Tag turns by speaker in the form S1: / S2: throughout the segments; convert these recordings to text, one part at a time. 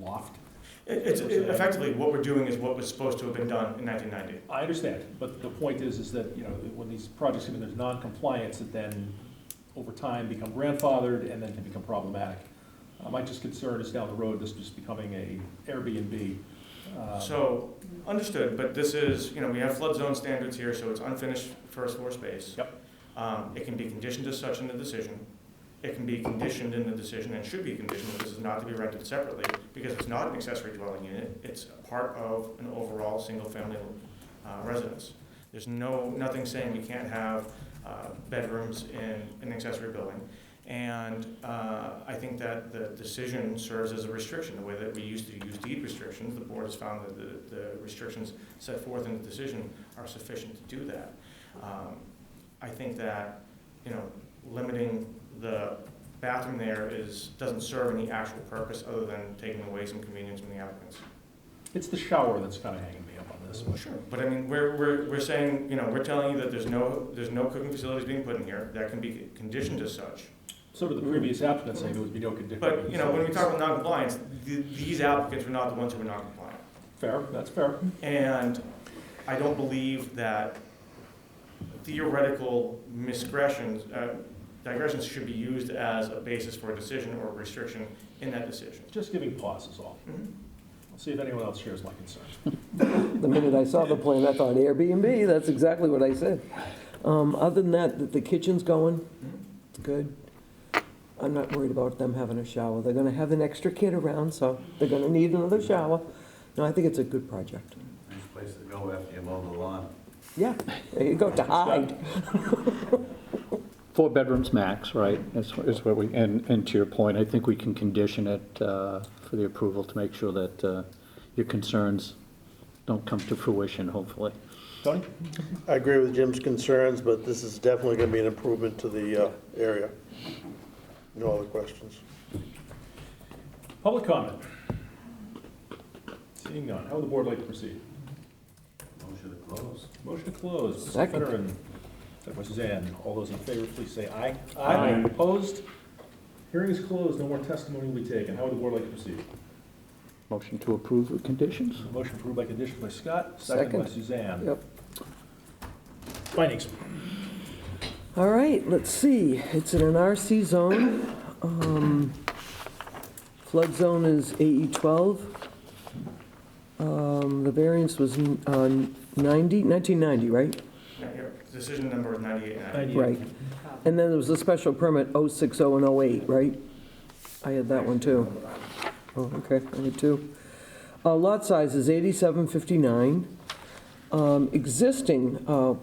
S1: loft?
S2: It- It's it- effectively, what we're doing is what was supposed to have been done in 1990.
S3: I understand, but the point is, is that, you know, when these projects come in, there's non-compliance that then, over time, become grandfathered and then can become problematic. Uh, My just concern is down the road, this just becoming a Airbnb. uh,
S2: So, understood, but this is, you know, we have flood zone standards here, so it's unfinished first floor space.
S3: Yep.
S2: Um, It can be conditioned as such in the decision. It can be conditioned in the decision and should be conditioned, that this is not to be rented separately, because it's not an accessory dwelling unit, it's a part of an overall single-family uh, residence. There's no, nothing saying we can't have uh, bedrooms in an accessory building. And uh, I think that the decision serves as a restriction, the way that we used to use deed restrictions. The board has found that the- the restrictions set forth in the decision are sufficient to do that. Um, I think that, you know, limiting the bathroom there is, doesn't serve any actual purpose other than taking away some convenience from the applicants.
S3: It's the shower that's kind of hanging me up on this one.
S2: Sure. But I mean, we're, we're, we're saying, you know, we're telling you that there's no, there's no cooking facilities being put in here. That can be conditioned as such.
S3: So did the previous applicant say there would be no condition.
S2: But, you know, when we talk about non-compliance, th- these applicants were not the ones who were non-compliant.
S3: Fair, that's fair.
S2: And I don't believe that theoretical misgressions, uh, digressions should be used as a basis for a decision or a restriction in that decision.
S3: Just giving pause is all.
S2: Mhm.
S3: I'll see if anyone else shares my concern.
S4: The minute I saw the plan, I thought Airbnb, that's exactly what I said. Um, Other than that, th- the kitchen's going,
S2: Mm-hmm.
S4: it's good. I'm not worried about them having a shower. They're gonna have an extra kid around, so they're gonna need another shower. No, I think it's a good project.
S5: Nice place to go after you mow the lawn.
S4: Yeah, there you go, to hide.
S6: Four bedrooms max, right, is, is what we, and, and to your point, I think we can condition it, uh, for the approval to make sure that, uh, your concerns don't come to fruition, hopefully.
S3: Tony?
S7: I agree with Jim's concerns, but this is definitely going to be an improvement to the uh, area. No other questions?
S3: Public comment? Seeing none, how would the board like to proceed?
S5: Motion to close.
S3: Motion to close.
S4: Second.
S3: Veteran, second by Suzanne, all those in favor, please say aye.
S2: Aye.
S3: Opposed? Hearing is closed, no more testimony will be taken. How would the board like to proceed?
S6: Motion to approve with conditions?
S3: Motion approved by condition by Scott, second by
S4: Second.
S3: Suzanne.
S4: Yep.
S3: Findings.
S4: All right, let's see, it's in an RC zone. Um, Flood zone is AE 12. Um, The variance was n- uh, 90, 1990, right?
S2: Now, here, Decision number is 98 and I-
S3: Ninety-eight.
S4: Right. And then there was a special permit 060 and 08, right? I had that one too. Oh, okay, I had two. Uh, Lot size is 8759. Um, Existing uh,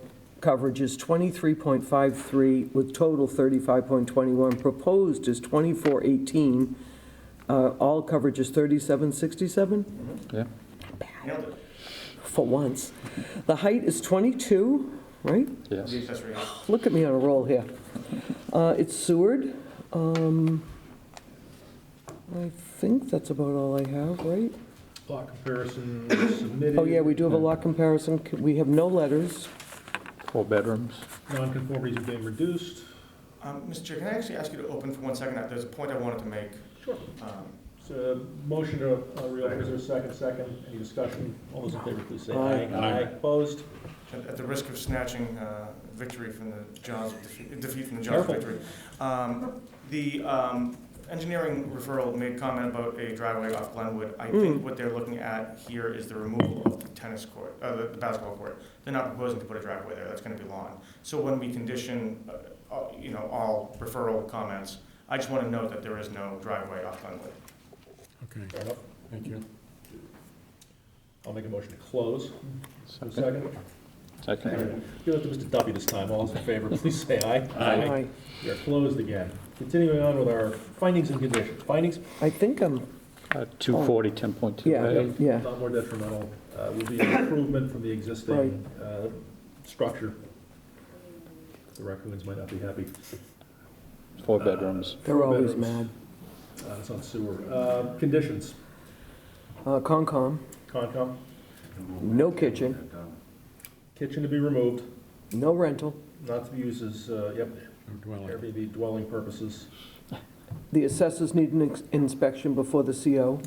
S4: coverage is 23.53 with total 35.21. Proposed is 2418. Uh, All coverage is 3767?
S6: Yeah.
S2: nailed it.
S4: for once. The height is 22, right?
S6: Yes.
S2: The accessory house.
S4: Look at me on a roll here. Uh, It's Seward. Um, I think that's about all I have, right?
S3: Lot comparison submitted.
S4: Oh, yeah, we do have a lot comparison. We have no letters.
S6: Four bedrooms.
S3: Non-conformities have been reduced.
S2: Um, Mr. Chair, can I actually ask you to open for one second? Uh, There's a point I wanted to make.
S3: Sure.
S2: Um,
S3: So, motion to uh, reopen, is there a second, second? Any discussion? All those in favor, please say aye. Aye.
S4: Aye.
S3: Opposed?
S2: At at the risk of snatching uh, victory from the Johns, defeat defeat from the Johns
S3: Careful.
S2: victory. um, The um, engineering referral made comment about a driveway off Glenwood. I think what they're looking at here is the removal of the tennis court, uh, the the basketball court. They're not proposing to put a driveway there, that's gonna be lawn. So when we condition, uh, all- you know, all referral comments, I just wanna note that there is no driveway off Glenwood.
S3: Fair enough. Thank you. I'll make a motion to close. Is there a Second.
S6: Second.
S3: Give it to Mr. Duffy this time. All those in favor, please say aye.
S4: I
S3: We are closed again. Continuing on with our findings and conditions. Findings,
S4: I think I'm,
S6: Uh, two forty, ten point two.
S4: yeah, yeah.
S3: not more detrimental, uh, will be an improvement from the existing, uh, structure. The raccoons might not be happy.
S6: Four bedrooms.
S4: They're always mad.
S3: bedrooms. Uh, it's on sewer. Uh, conditions,
S4: Uh, Concom,
S3: Concom,
S4: No kitchen.
S3: kitchen to be removed,
S4: no rental.
S3: not to be used as, uh, yep, Airbnb dwelling purposes.
S4: The assessors need an ex- inspection before the CO.